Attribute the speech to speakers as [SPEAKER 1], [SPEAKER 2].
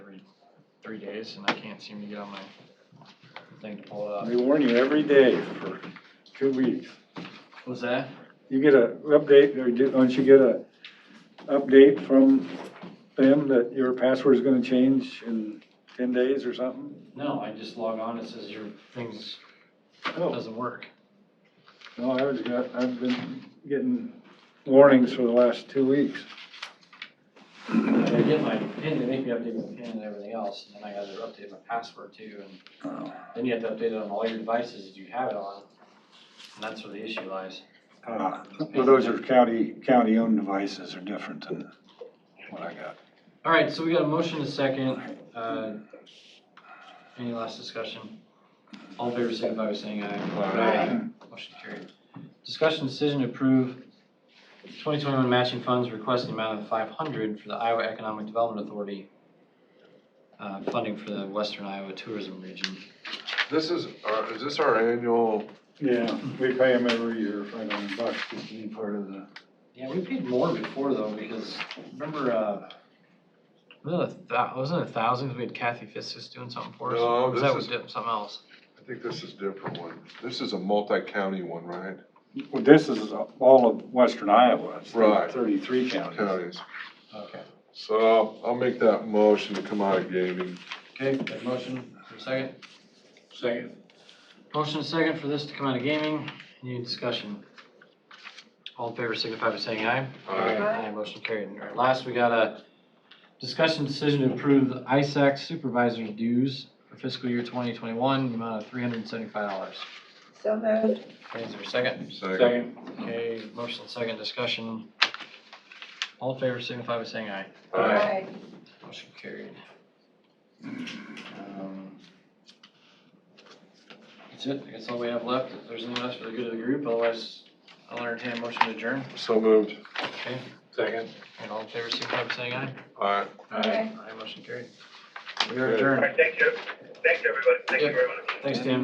[SPEAKER 1] three days and I can't seem to get on my thing to pull it up.
[SPEAKER 2] We warn you every day for two weeks.
[SPEAKER 1] What's that?
[SPEAKER 2] You get a update, or do- don't you get a update from them that your password's gonna change in ten days or something?
[SPEAKER 1] No, I just log on, it says your thing's,
[SPEAKER 2] Oh,
[SPEAKER 1] doesn't work.
[SPEAKER 2] no, I was got, I've been getting warnings for the last two weeks.
[SPEAKER 1] I get my pin, they make me update my pin and everything else, and then I gotta update my password too, and then you have to update it on all your devices that you have it on. And that's where the issue lies.
[SPEAKER 2] Uh, Well, those are county, county-owned devices are different than what I got.
[SPEAKER 1] All right, so we got a motion and a second. Uh, Any last discussion? All in favor, signify by saying aye. Aye. Motion carried. Discussion decision to approve 2021 matching funds request in the amount of 500 for the Iowa Economic Development Authority uh, funding for the Western Iowa Tourism Region.
[SPEAKER 3] This is, our- is this our annual,
[SPEAKER 2] Yeah, we pay them every year, five hundred bucks just to be part of the.
[SPEAKER 1] Yeah, we paid more before though, because remember, uh, wasn't it a thou- wasn't it a thousand, we had Kathy Fiskus doing something for us?
[SPEAKER 3] No,
[SPEAKER 1] Or Was
[SPEAKER 3] this
[SPEAKER 1] that
[SPEAKER 3] is-
[SPEAKER 1] with di- something else?
[SPEAKER 3] I think this is a different one. This is a multi-county one, right?
[SPEAKER 2] Well, this is all of western Iowa. It's
[SPEAKER 3] Right.
[SPEAKER 2] Thirty-three counties.
[SPEAKER 3] Counties.
[SPEAKER 1] Okay.
[SPEAKER 3] So I'll make that motion to come out of gaming.
[SPEAKER 1] Okay, got a motion for a second? Second. Motion and second for this to come out of gaming. Any discussion? All in favor signify by saying aye.
[SPEAKER 3] Aye.
[SPEAKER 1] motion carried. And our last, we got a discussion decision to approve the ISAC supervisor's dues for fiscal year twenty twenty-one, the amount of three hundred and seventy-five dollars.
[SPEAKER 4] So moved.
[SPEAKER 1] Okay, is there a second?
[SPEAKER 3] Second.
[SPEAKER 1] Okay, motion and second, discussion. All in favor signify by saying aye.
[SPEAKER 3] Aye.
[SPEAKER 1] Motion carried. Um, That's it, I guess all we have left, if there's anything else for the good of the group, otherwise I'll entertain a motion to adjourn,
[SPEAKER 3] So moved.
[SPEAKER 1] okay?
[SPEAKER 3] Second.
[SPEAKER 1] And all in favor, signify by saying aye.
[SPEAKER 3] Aye.
[SPEAKER 4] Aye.
[SPEAKER 1] Aye, motion carried. We are adjourned,
[SPEAKER 5] All right, thank you. Thanks, everybody. Thank you
[SPEAKER 1] Yeah.
[SPEAKER 5] very much.
[SPEAKER 1] thanks, Dan.